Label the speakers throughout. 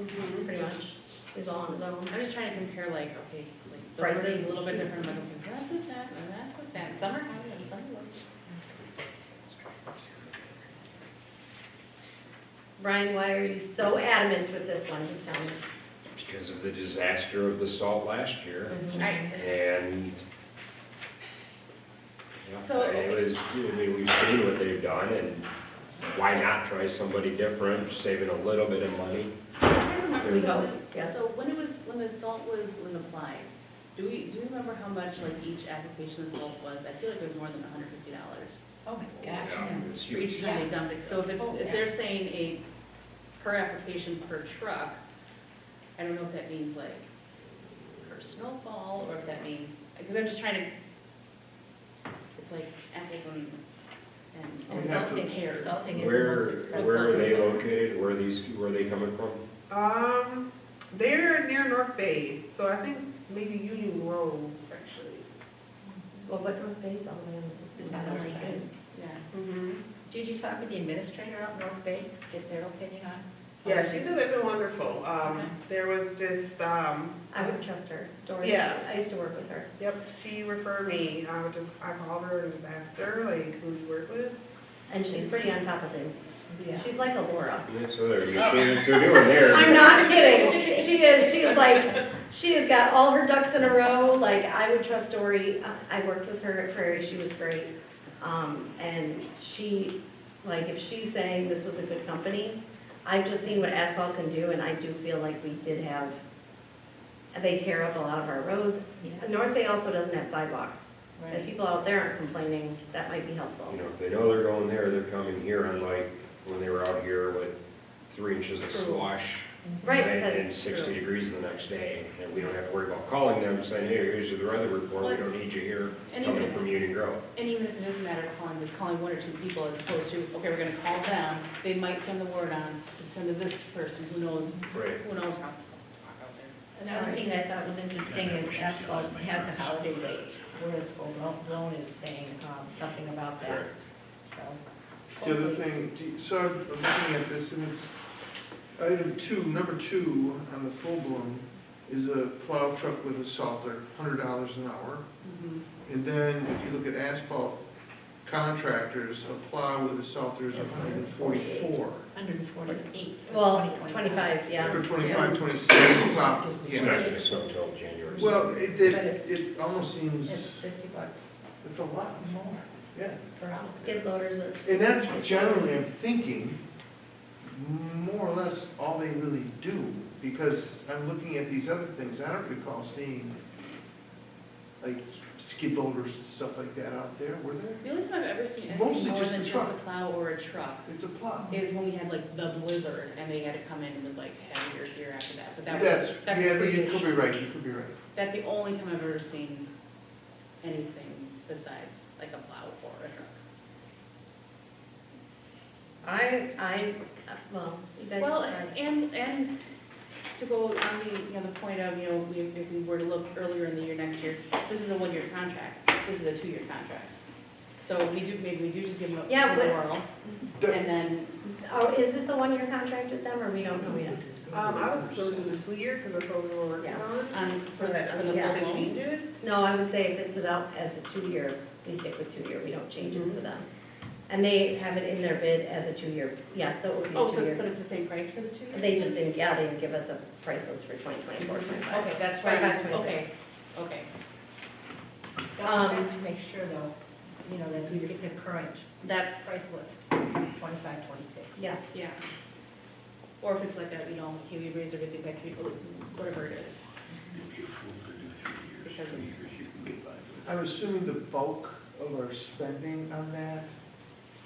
Speaker 1: Mhm, Pretty much, he's all on his own.
Speaker 2: I'm just trying to compare like, okay, like
Speaker 1: Prices.
Speaker 2: prices a little bit different, like, okay, so that's just that, and that's just that, some are high and some are low.
Speaker 1: Brian, why are you so adamant with this one, just tell me.
Speaker 3: because of the disaster of the salt last year,
Speaker 1: Mm-hmm.
Speaker 2: I,
Speaker 3: and yeah,
Speaker 2: So-
Speaker 3: and it was, I mean, we've seen what they've done, and why not try somebody different, saving a little bit of money?
Speaker 2: I remember,
Speaker 1: So,
Speaker 2: so,
Speaker 1: yes.
Speaker 2: so when it was, when the salt was, was applied, do we, do you remember how much like each application of salt was? I feel like it was more than hundred fifty dollars.
Speaker 4: Oh my gosh,
Speaker 3: Yeah,
Speaker 4: yes.
Speaker 3: it's
Speaker 2: For
Speaker 3: huge.
Speaker 2: each time they dumped it, so if it's,
Speaker 4: Oh,
Speaker 2: if
Speaker 4: yeah.
Speaker 2: they're saying a per application per truck, I don't know if that means like per snowfall, or if that means, because I'm just trying to, it's like apples and, and.
Speaker 4: And
Speaker 2: and
Speaker 4: something,
Speaker 2: pears.
Speaker 4: something is the most
Speaker 3: Where,
Speaker 4: expensive.
Speaker 3: where are they located, where are these, where are they coming from?
Speaker 5: Um, they're near North Bay, so I think maybe Union Grove, actually.
Speaker 1: Well, what North Bay's all the way on the,
Speaker 4: It's on the other side.
Speaker 2: Yeah.
Speaker 1: Mm-hmm.
Speaker 4: Did you talk with the administrator out in North Bay, get their opinion on?
Speaker 5: Yeah, she said they've been wonderful.
Speaker 2: Okay.
Speaker 5: Um, there was just, um,
Speaker 1: I would trust her, Dory,
Speaker 5: Yeah.
Speaker 1: I used to work with her.
Speaker 5: yep, she referred me. I would just, I called her and just asked her, like, who do you work with?
Speaker 1: And she's pretty on top of things. She's like a Laura.
Speaker 3: Yeah, so they're, they're doing there.
Speaker 1: I'm not kidding. She is, she is like, she has got all her ducks in a row. Like, I would trust Dory. I- I worked with her at Prairie, she was great. Um, and she, like, if she's saying this was a good company, I've just seen what asphalt can do, and I do feel like we did have, they tear up a lot of our roads.
Speaker 4: Yeah,
Speaker 1: North Bay also doesn't have sidewalks. If
Speaker 4: right.
Speaker 1: people out there aren't complaining, that might be helpful.
Speaker 3: You know, if they know they're going there, they're coming here, unlike when they were out here with three inches of slush.
Speaker 4: Mm-hmm.
Speaker 1: Right,
Speaker 3: and-
Speaker 1: because.
Speaker 3: And sixty degrees the next day, and we don't have to worry about calling them, saying, hey, here's the weather report, we don't need you here,
Speaker 2: And even
Speaker 3: coming
Speaker 2: if,
Speaker 3: from Union Grove.
Speaker 2: and even if it doesn't matter calling, just calling one or two people as opposed to, okay, we're gonna call them, they might send the word on, send to this person, who knows,
Speaker 3: Right.
Speaker 2: who knows how.
Speaker 4: Another thing I thought was interesting is asphalt has a holiday rate, whereas Loan is saying um, something about that, so.
Speaker 6: The other thing, do you- so I'm looking at this, and it's item two, number two on the full bloom is a plow truck with a salter, hundred dollars an hour.
Speaker 2: Mhm.
Speaker 6: And then if you look at asphalt contractors, a plow with a salter is a hundred and forty-four.
Speaker 4: Hundred and forty-eight.
Speaker 1: Well, twenty-five, yeah.
Speaker 6: Or twenty-five, twenty-six, plow,
Speaker 3: It's not
Speaker 6: yeah.
Speaker 3: gonna snow till January.
Speaker 6: Well, it,
Speaker 4: But
Speaker 6: it,
Speaker 4: it's-
Speaker 6: it almost seems,
Speaker 4: It's fifty bucks
Speaker 6: it's a lot,
Speaker 4: more
Speaker 6: yeah.
Speaker 4: per hour.
Speaker 1: Skid loaders are.
Speaker 6: And that's generally, I'm thinking, more or less all they really do, because I'm looking at these other things, I don't recall seeing like skid loaders and stuff like that out there, were there?
Speaker 2: The only time I've ever seen
Speaker 6: Mostly
Speaker 2: anything more
Speaker 6: just
Speaker 2: than
Speaker 6: a
Speaker 2: just a
Speaker 6: truck.
Speaker 2: plow or a truck
Speaker 6: It's a plot.
Speaker 2: is when we had like the blizzard and they had to come in with like heavier gear after that, but that
Speaker 6: That's,
Speaker 2: was,
Speaker 6: yeah,
Speaker 2: that's
Speaker 6: you could
Speaker 2: pretty,
Speaker 6: be right, you could be right.
Speaker 2: that's the only time I've ever seen anything besides like a plow or a truck.
Speaker 1: I, I, well, you guys.
Speaker 2: Well,
Speaker 1: decide.
Speaker 2: and, and to go on the, you know, the point of, you know, we- if we were to look earlier in the year, next year, this is a one-year contract, this is a two-year contract. So we do, maybe we do just give them a
Speaker 1: Yeah, but-
Speaker 2: whirl,
Speaker 6: The-
Speaker 2: and then,
Speaker 1: Oh, is this a one-year contract with them, or we don't know yet?
Speaker 5: Um, I was still doing the school year, because that's what we were working
Speaker 1: Yeah. Uh,
Speaker 5: on.
Speaker 2: um, for the, for the
Speaker 1: Yeah.
Speaker 5: They
Speaker 2: full loan.
Speaker 5: changed it.
Speaker 1: No, I would say if it was out as a two-year, we stick with two-year, we don't change it for them. And they have it in their bid as a two-year, yeah, so it would be
Speaker 2: Oh,
Speaker 1: a
Speaker 2: so it's, but
Speaker 1: two-year.
Speaker 2: it's the same price for the two?
Speaker 1: They just didn't, yeah, they didn't give us a price list for 2024, 25.
Speaker 2: Okay, that's why,
Speaker 1: Twenty-five,
Speaker 2: we-
Speaker 1: twenty-six.
Speaker 2: okay, okay.
Speaker 4: Well, we have
Speaker 1: Um,
Speaker 4: to make sure though, you know, that we get the current
Speaker 1: That's,
Speaker 4: price list, twenty-five, twenty-six.
Speaker 1: yes.
Speaker 2: Yeah. Or if it's like a, you know, can we raise everything by three, whatever it is.
Speaker 7: You'd be a fool to do three
Speaker 2: Because
Speaker 7: years, two
Speaker 2: it's-
Speaker 7: years, you can get by with it.
Speaker 6: I'm assuming the bulk of our spending on that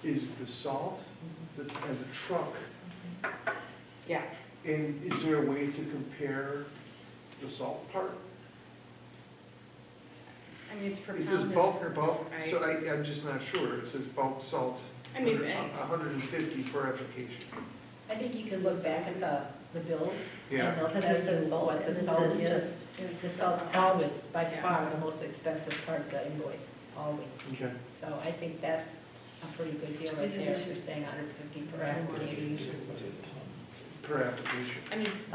Speaker 6: is the salt the- and the truck.
Speaker 2: Mm-hmm. Yeah.
Speaker 6: And is there a way to compare the salt part?
Speaker 2: I mean, it's per pound.
Speaker 6: It says
Speaker 2: or
Speaker 6: bulk,
Speaker 2: per-
Speaker 6: bulk, so
Speaker 2: Right.
Speaker 6: I, I'm just not sure. It says bulk salt,
Speaker 2: I mean,
Speaker 6: hundred-
Speaker 2: eh,
Speaker 6: a hundred and fifty per application.
Speaker 4: I think you could look back at the, the bills.
Speaker 6: Yeah,
Speaker 4: And they'll
Speaker 1: Because
Speaker 4: tell
Speaker 1: this is
Speaker 4: you
Speaker 1: bulk,
Speaker 4: what
Speaker 1: and
Speaker 4: the
Speaker 1: this
Speaker 4: salt
Speaker 1: is
Speaker 4: is.
Speaker 1: just,
Speaker 4: The salt's always, by
Speaker 2: Yeah.
Speaker 4: far, the most expensive part of the invoice, always.
Speaker 6: okay.
Speaker 4: So I think that's a pretty good deal right there, if you're saying hundred fifty per application.
Speaker 6: Per application.
Speaker 2: I mean,